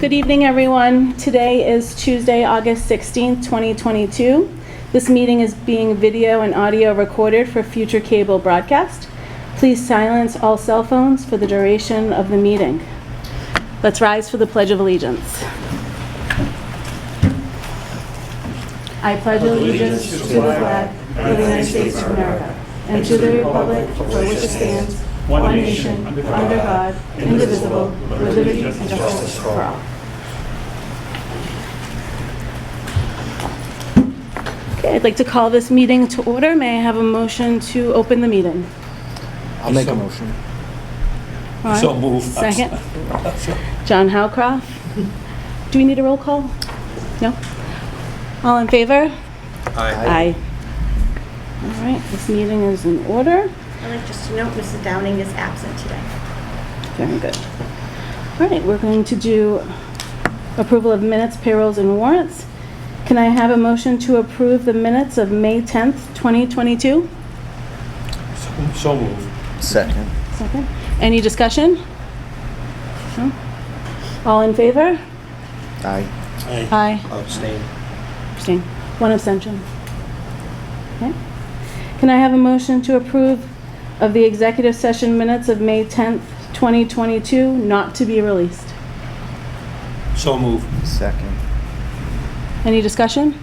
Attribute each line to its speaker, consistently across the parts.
Speaker 1: Good evening, everyone. Today is Tuesday, August 16th, 2022. This meeting is being video and audio recorded for future cable broadcast. Please silence all cell phones for the duration of the meeting. Let's rise for the Pledge of Allegiance. I pledge allegiance to the flag of the United States of America and to the republic for which it stands, one nation, under God, indivisible, with liberty and justice for all. Okay, I'd like to call this meeting to order. May I have a motion to open the meeting?
Speaker 2: I'll make a motion.
Speaker 1: Ron?
Speaker 3: So move.
Speaker 1: Second. John Howcroft. Do we need a roll call? No? All in favor? Aye. All right, this meeting is in order.
Speaker 4: I'd like just to note Mrs. Downing is absent today.
Speaker 1: Very good. All right, we're going to do approval of minutes, payrolls, and warrants. Can I have a motion to approve the minutes of May 10th, 2022?
Speaker 3: So move.
Speaker 2: Second.
Speaker 1: Second. Any discussion? No? All in favor?
Speaker 2: Aye.
Speaker 1: Aye.
Speaker 2: Abstain.
Speaker 1: Abstain. One abstention. Okay. Can I have a motion to approve of the executive session minutes of May 10th, 2022, not to be released?
Speaker 3: So move.
Speaker 2: Second.
Speaker 1: Any discussion?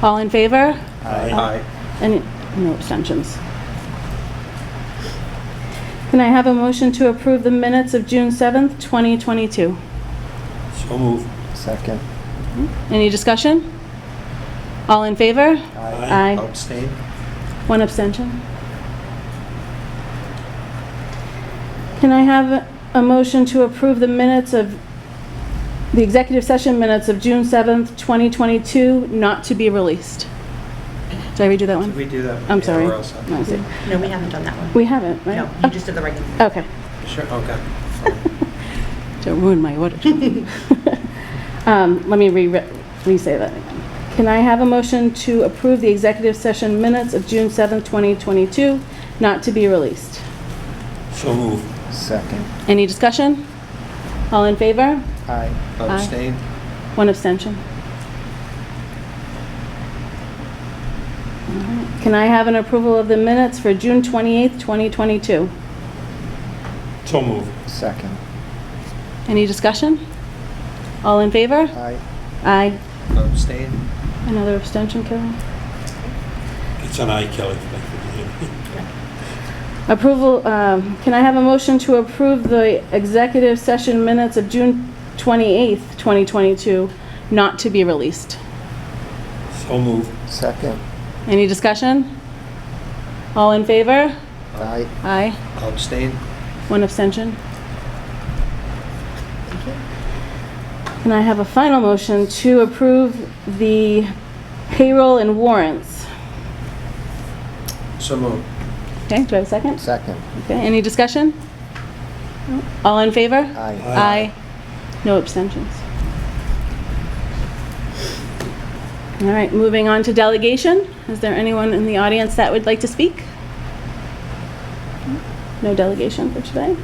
Speaker 1: All in favor?
Speaker 3: Aye.
Speaker 1: Any, no abstentions. Can I have a motion to approve the minutes of June 7th, 2022?
Speaker 3: So move.
Speaker 2: Second.
Speaker 1: Any discussion? All in favor? Aye.
Speaker 2: Abstain.
Speaker 1: One abstention. Can I have a motion to approve the minutes of, the executive session minutes of June 7th, 2022, not to be released? Did I redo that one?
Speaker 5: We do that.
Speaker 1: I'm
Speaker 5: yeah,
Speaker 1: sorry.
Speaker 5: we're all set.
Speaker 1: No, I see.
Speaker 4: No, we haven't done that one.
Speaker 1: We haven't, right?
Speaker 4: No, you just did the regular.
Speaker 1: Okay.
Speaker 5: Sure, okay.
Speaker 1: Don't ruin my order. Um, Let me re, re-say that again. Can I have a motion to approve the executive session minutes of June 7th, 2022, not to be released?
Speaker 3: So move.
Speaker 2: Second.
Speaker 1: Any discussion? All in favor?
Speaker 2: Aye.
Speaker 5: Abstain.
Speaker 1: One abstention. All right. Can I have an approval of the minutes for June 28th, 2022?
Speaker 3: So move.
Speaker 2: Second.
Speaker 1: Any discussion? All in favor?
Speaker 2: Aye.
Speaker 1: Aye.
Speaker 5: Abstain.
Speaker 1: Another abstention, Kevin?
Speaker 3: It's an aye, Kelly. Thank you.
Speaker 1: Approval, um, can I have a motion to approve the executive session minutes of June 28th, 2022, not to be released?
Speaker 3: So move.
Speaker 2: Second.
Speaker 1: Any discussion? All in favor?
Speaker 2: Aye.
Speaker 1: Aye.
Speaker 5: Abstain.
Speaker 1: One abstention. And I have a final motion to approve the payroll and warrants.
Speaker 5: So moved.
Speaker 1: Okay, do I have a second?
Speaker 2: Second.
Speaker 1: Okay, any discussion? No? All in favor?
Speaker 2: Aye.
Speaker 1: Aye. No abstentions. All right, moving on to delegation. Is there anyone in the audience that would like to speak? No delegation for today.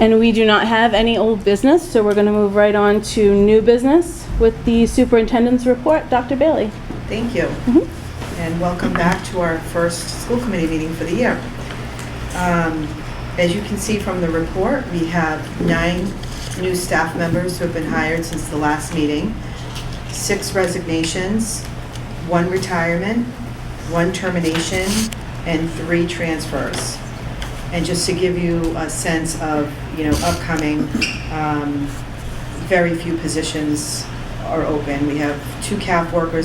Speaker 1: And we do not have any old business, so we're going to move right on to new business with the superintendent's report. Dr. Bailey?
Speaker 6: Thank you. And welcome back to our first school committee meeting for the year. Um, As you can see from the report, we have nine new staff members who have been hired since the last meeting, six resignations, one retirement, one termination, and three transfers. And just to give you a sense of, you know, upcoming, um, very few positions are open. We have two CAF workers